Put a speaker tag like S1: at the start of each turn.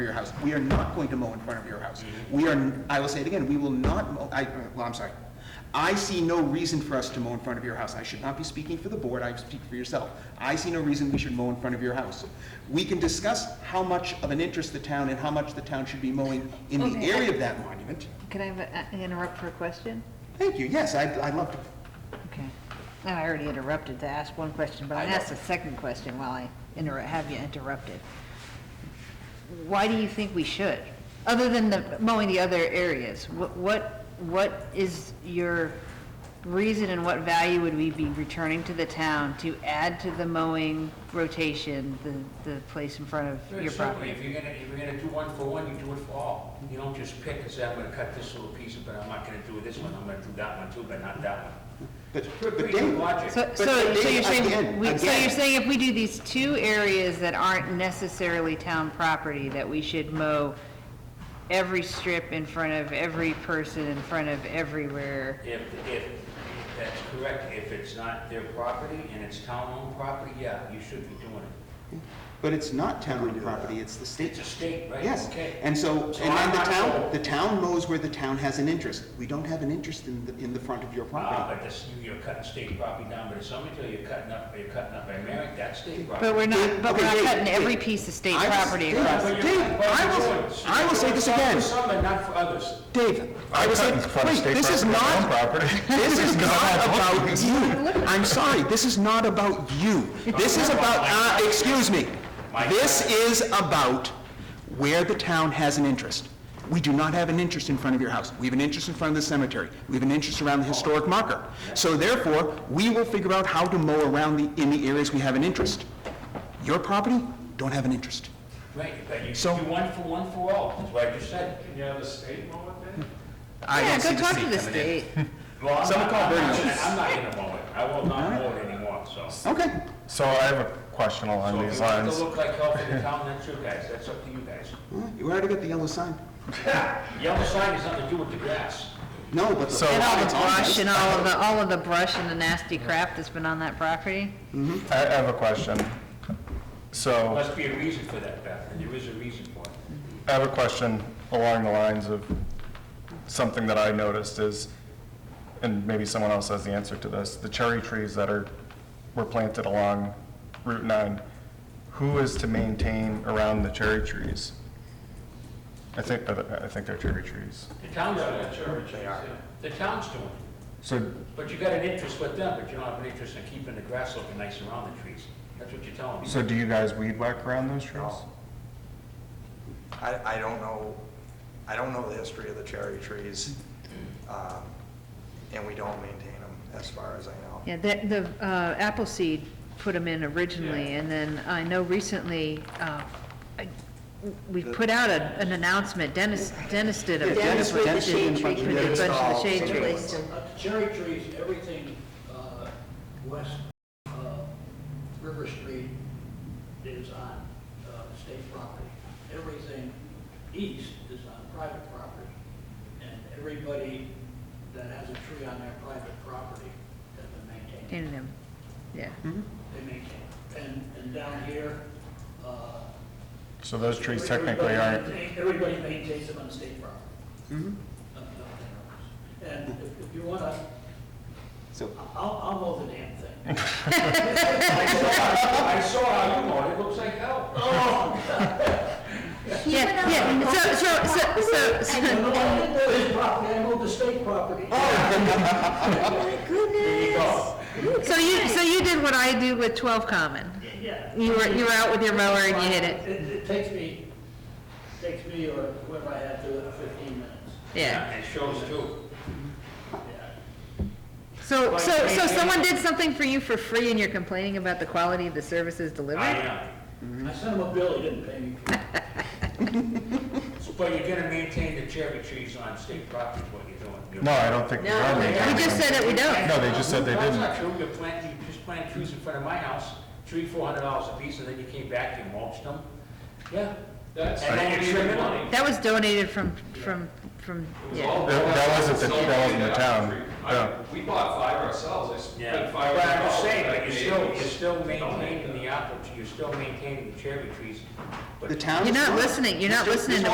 S1: of your house. We are not going to mow in front of your house.
S2: Mm-hmm.
S1: We are, I will say it again, we will not mow, I, well, I'm sorry. I see no reason for us to mow in front of your house. I should not be speaking for the board, I speak for yourself. I see no reason we should mow in front of your house. We can discuss how much of an interest the town and how much the town should be mowing in the
S3: Okay.
S1: area of that monument.
S3: Can I have a- uh, interrupt for a question?
S1: Thank you, yes, I'd, I'd love to.
S3: Okay. No, I already interrupted to ask one question, but
S1: I
S3: I'll
S1: know.
S3: ask the second question while I inter, have you interrupted. Why do you think we should? Other than the, mowing the other areas, what, what, what is your reason and what value would we be returning to the town to add to the mowing rotation, the, the place in front of
S2: Very
S3: your
S2: simply,
S3: property?
S2: if you're gonna, if you're gonna do one for one, you do it for all. You don't just pick and say, I'm gonna cut this little piece, but I'm not gonna do this one, I'm gonna do that one too, but not that one.
S1: But,
S2: Pretty
S1: but
S2: good
S1: Dave,
S2: logic.
S3: So,
S1: But
S3: so, so
S1: they-
S3: you're saying,
S1: again-
S3: we- so
S1: again-
S3: you're saying if we do these two areas that aren't necessarily town property, that we should mow every strip in front of every person, in front of everywhere?
S2: If, if, that's correct, if it's not their property and it's town-owned property, yeah, you should be doing it.
S1: but it's not town property, it's the state's.
S2: It's a state, right?
S1: Yes,
S2: Okay.
S1: and so, and
S2: So
S1: then
S2: I'm
S1: the
S2: not
S1: town,
S2: sold.
S1: the town knows where the town has an interest. We don't have an interest in the, in the front of your
S2: Ah,
S1: property.
S2: but this, you- you're cutting state property down, but if somebody tell you you're cutting up, you're cutting up by marriage, that's state
S3: But
S2: property.
S3: we're not,
S1: Dave,
S3: but we're
S1: okay,
S3: not
S1: Dave,
S3: cutting every
S1: Dave,
S3: piece of state
S1: I was-
S3: property
S1: Dave,
S3: across.
S2: But you're-
S1: Dave,
S2: but
S1: I
S2: you're
S1: will-
S2: doing it. So
S1: I will
S2: you're
S1: say
S2: doing
S1: this
S2: something
S1: again.
S2: For some and not for others.
S1: Dave, I was
S4: cut in
S1: like,
S4: front of
S1: wait,
S4: state
S1: this is
S4: property,
S1: not,
S4: my own property.
S1: this is
S4: Because I
S1: not
S4: have
S1: about
S4: both.
S1: you. I'm sorry, this is not about you. This is about, uh, excuse me. This is about where the town has an interest. We do not have an interest in front of your house. We have an interest in front of the cemetery. We have an interest around the historic marker. So therefore, we will figure out how to mow around the, in the areas we have an interest. Your property, don't have an interest.
S2: Right, but you
S1: So-
S2: should do one for one for all, that's what I just said.
S5: Can you have the state mow it then?
S1: I don't see
S3: Yeah, go talk
S1: state
S3: to the
S1: coming in.
S3: state.
S2: Well, I'm
S1: Someone
S2: not,
S1: call
S2: I'm not
S1: Bernie.
S2: gonna- I'm not gonna mow it, I will not mow it anymore, so. So
S1: Okay.
S4: So I have a question along
S2: if
S4: these
S2: you want it to
S4: lines.
S2: look like hell for the town, that's your guys, that's up to you guys.
S1: Well, You already got the yellow sign.
S2: Yellow sign has nothing to do with the grass.
S1: No, but the
S4: So-
S3: And all the
S1: Oh, It's on there.
S3: brush and all of the, all of the brush and the nasty crap that's been on that property?
S4: I I have a question.
S2: There
S4: So
S2: must be a reason for that, Beth, and there is a reason for it.
S4: I have a question along the lines of something that I noticed is, and maybe someone else has the answer to this, the cherry trees that are, were planted along Route 9, who is to maintain around the cherry trees? I think, that- I think they're cherry trees.
S2: The town's doing it, sure, they are. The town's doing it,
S4: So
S2: but you got an interest with them, but you don't have an interest in keeping the grass looking nice around the trees. That's what you're telling me.
S4: So do you guys weed whack around those trees?
S6: No. I, I don't know, I don't know the history of the cherry trees, um, and we don't maintain them, as far as I know.
S3: Yeah, the, the uh, apple seed put them in originally, and then I know recently, uh, I- we put out a- an announcement, Dennis, Dennis did a.
S1: Dennis with the Dennis did shade a bunch tree. of-
S3: With the bunch of the
S6: Install
S3: shade trees.
S7: Uh, the Cherry trees, everything uh, west of River Street is on uh, state property. Everything east is on private property. And everybody that has a tree on their private property has been maintained
S3: In them,
S1: Mm-hmm.
S3: yeah.
S7: they maintain. And, and down here, uh.
S4: So those trees technically
S7: everybody
S4: aren't,
S7: maintain- Everybody maintains them on the state property. Up and down there. And if, if you wanna,
S1: So-
S7: I'll, I'll mow the damn thing.
S2: I saw how you mowed it, looks like hell.
S3: Yeah, yeah, so, so, so, so,
S7: And
S3: so,
S7: I didn't mow his property, I mowed the state property.
S4: Oh,
S3: so you, so you did what I do with twelve common.
S7: Yeah.
S3: You were, you were out with your mower and you hit it,
S7: It, it takes me, takes me or whoever I have to, uh, fifteen minutes,
S3: yeah.
S2: It shows too.
S7: yeah.
S3: So, so, so someone did something for you for free and you're complaining about the quality of the services delivered?
S2: I uh, am.
S7: I sent him a bill, he didn't pay me for it.
S2: But you're gonna maintain the cherry trees on state property, is what you're doing. You're-
S4: no, I don't think they are maintaining.
S3: We just said that we don't.
S4: No, they just said they
S2: That's
S4: didn't.
S2: not true, you're planting, you just planted trees in front of my house, three, four hundred dollars a piece, and then you came back, you mulched them. Yeah.
S5: That's
S2: And then you trim it
S5: money.
S2: on.
S3: That was donated from, from from,
S5: It was
S3: yeah.
S5: all
S4: That-
S5: bought
S4: that
S5: by
S4: wasn't the-
S5: itself
S4: that wasn't the
S5: in
S4: town,
S5: tree.
S4: yeah.
S5: I, we bought five ourselves, I
S2: Yeah,
S5: spent
S2: but
S5: five.
S2: I'm just saying,
S5: dollars.
S2: but you're still,
S5: Maybe
S2: you're still
S5: we donate
S2: maintaining
S5: them.
S2: the apple, you're still maintaining the cherry trees. but
S1: The town.
S3: You're
S1: is
S3: not
S1: not.
S3: listening, you're not
S1: Mr.
S3: listening to